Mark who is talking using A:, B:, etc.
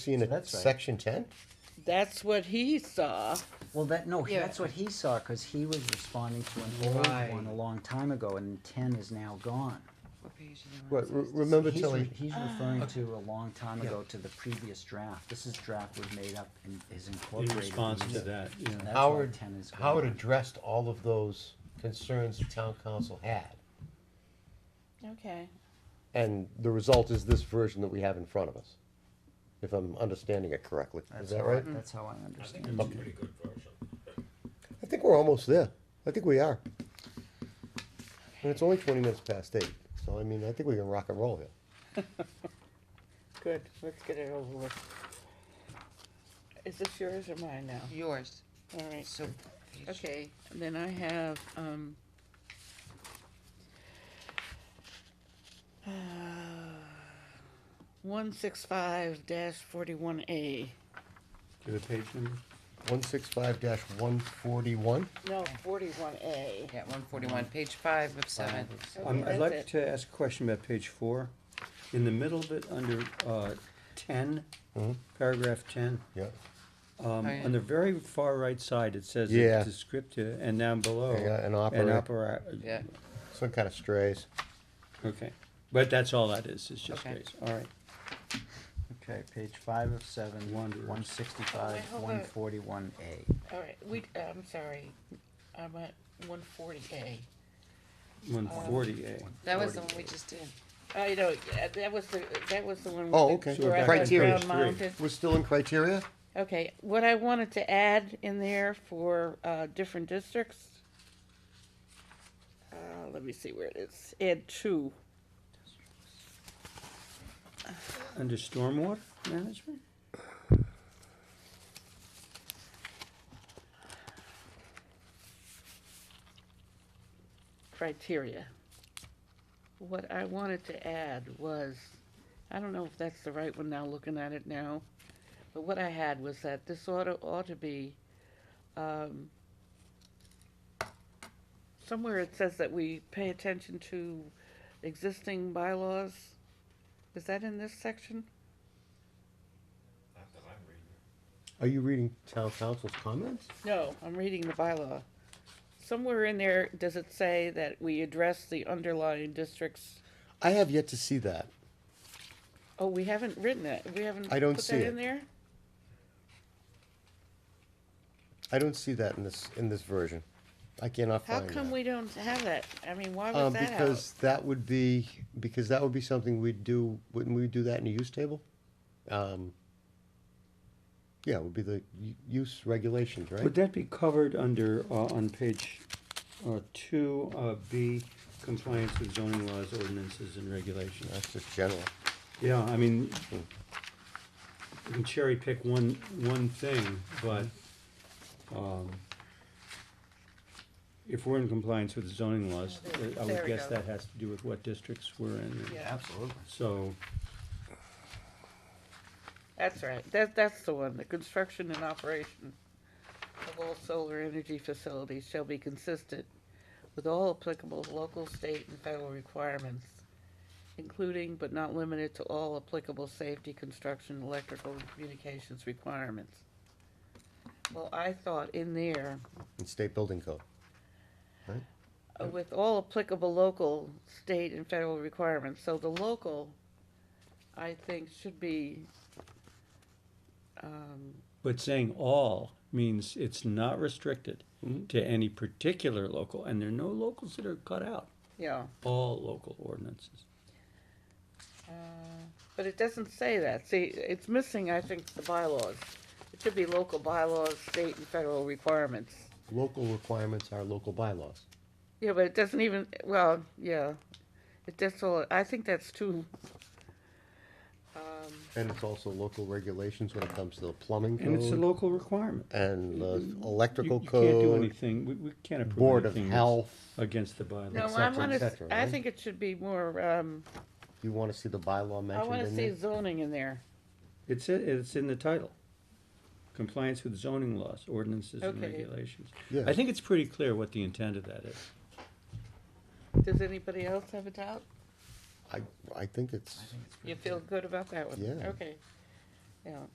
A: Seeing a
B: that's right.
A: section ten?
C: That's what he saw.
B: Well, that, no, he-
D: Yeah.
B: that's what he saw, cause he was responding to an old one a long time ago, and ten is now gone.
D: What page is it on?
A: Right, re- remember
B: He's, re-
A: Tilly,
B: he's referring to a long time ago to the previous draft, this is draft was made up and is
E: in
B: incorporated.
E: response to
B: into-
E: that, yeah.
B: That's why
A: Howard,
B: 10 is gone.
A: Howard addressed all of those concerns the town council had.
C: Okay.
A: And the result is this version that we have in front of us, if I'm understanding it correctly. Is
B: That's
A: that
B: how I-
A: right?
B: That's how
D: Mm-hmm.
B: I understand.
E: And
B: it.
E: pretty good version.
A: I think we're almost there. I think we are. And it's only twenty minutes past eight, so I mean, I think we can rock and roll here.
C: Good. Let's get it over with. Is this yours or mine now?
D: Yours,
C: All right.
D: so. page-
C: Okay, then I have, um. uh, One six five dash forty-one A,
E: Do you have a page number?
A: One six five one forty-one.
C: no, forty-one A.
D: Yeah, one forty-one, page five of seven.
E: Um,
C: that's
E: I'd
C: it.
E: like to ask a question about page four. In the middle of it, under, uh, ten,
A: Mm-hmm.
E: paragraph ten,
A: Yeah,
E: um,
D: Oh, yeah.
E: on the very far right side, it says
A: Yeah.
E: it's descriptive, and down below.
A: Yeah, an
E: An
A: opera-
E: opera-
D: Yeah,
A: some kind of strays.
E: okay. But that's all that is, it's just
D: Okay.
E: race, all right.
B: Okay, page five of seven, one, one sixty-five,
C: Oh, wait,
B: one
C: hold on.
B: forty-one A.
C: All right, we, I'm sorry, I'm at one forty A.
E: One forty A.
D: that was the one we just did.
C: I know, yeah, that was the, that was the one.
A: Oh,
C: with
A: okay.
C: the
A: So we're back
C: Ground-
A: to Criteria.
C: Ground mounted.
A: We're still in criteria?
C: Okay, what I wanted to add in there for, uh, different districts. Uh, let me see where it is, add two.
E: Under stormwater management?
C: criteria. What I wanted to add was, I don't know if that's the right one now, looking at it now, but what I had was that this ought to, ought to be, um, somewhere it says that we pay attention to existing bylaws. Is that in this section?
A: Are you reading town council's comments?
C: No, I'm reading the bylaw. Somewhere in there, does it say that we address the underlying districts?
A: I have yet to see that.
C: Oh, we haven't written it. We haven't
A: I don't
C: put
A: see
C: that
A: it.
C: in there?
A: I don't see that in this, in this version. I cannot
C: How
A: find that.
C: come we don't have that? I mean, why
A: Um,
C: was that out?
A: because that would be, because that would be something we'd do, wouldn't we do that in a use table? Um, Yeah, it would be the u- use regulations, right?
E: Would that be covered under, uh, on page, uh, two, uh, B, compliance with zoning laws, ordinances, and regulations?
A: That's just general.
E: Yeah, I mean, you can cherry pick one, one thing, but, um, if we're in compliance with zoning laws, uh, I
C: There
E: would
C: we
E: guess
C: go.
E: that has to do with what districts we're in.
C: Yeah,
B: Absolutely.
E: So,
C: that's right. That, that's the one. The construction and operation of all solar energy facilities shall be consistent with all applicable local, state, and federal requirements, including but not limited to all applicable safety, construction, electrical, and communications requirements. Well, I thought in there,
A: And state building code.
C: uh, with all applicable local, state, and federal requirements, so the local, I think, should be, um,
E: but saying all means it's not restricted to any particular local, and there are no locals that are cut out,
C: yeah,
E: all local ordinances.
C: uh, but it doesn't say that, see, it's missing, I think, the bylaws. It should be local bylaws, state and federal requirements.
A: Local requirements are local bylaws.
C: Yeah, but it doesn't even, well, yeah, it, that's all, I think that's too, um,
A: And it's also local regulations when it comes to the plumbing
E: And it's a
A: code
E: local requirement.
A: and the
E: You-
A: electrical
E: You can't do
A: code,
E: anything, we, we can't approve anything.
A: board of
E: that's
A: health.
E: Against the bylaws.
C: no, I
A: cetera, et
C: wanna, s-
A: cetera,
C: I
A: right?
C: think it should be more, um,
A: You wanna see the bylaw
C: I
A: mentioned
C: wanna
A: in
C: see
A: there?
C: zoning in there.
E: It's, i- it's in the title. Compliance with zoning laws, ordinances and
C: Okay.
E: regulations.
A: Yeah.
E: I think it's pretty clear what the intent of that is.
C: Does anybody else have a doubt?
A: I, I think it's,
C: You feel good about that one?
A: Yeah.
C: Okay. Yeah.